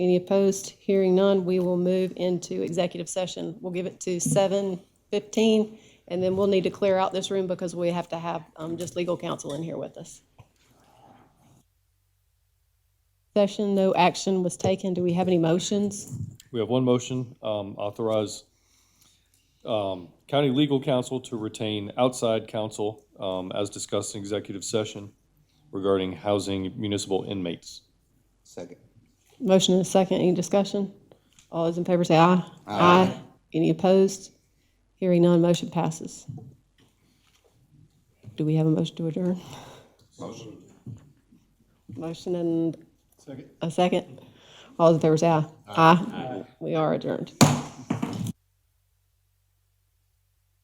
Any opposed? Hearing none, we will move into executive session. We'll give it to 7:15, and then we'll need to clear out this room because we have to have um, just legal counsel in here with us. Session, no action was taken. Do we have any motions? We have one motion, um, authorize, um, county legal counsel to retain outside counsel, um, as discussed in executive session regarding housing municipal inmates. Second. Motion and a second, any discussion? All those in favor say aye. Aye. Any opposed? Hearing none, motion passes. Do we have a motion to adjourn? Motion. Motion and? Second. A second? All those in favor say aye. Aye. We are adjourned.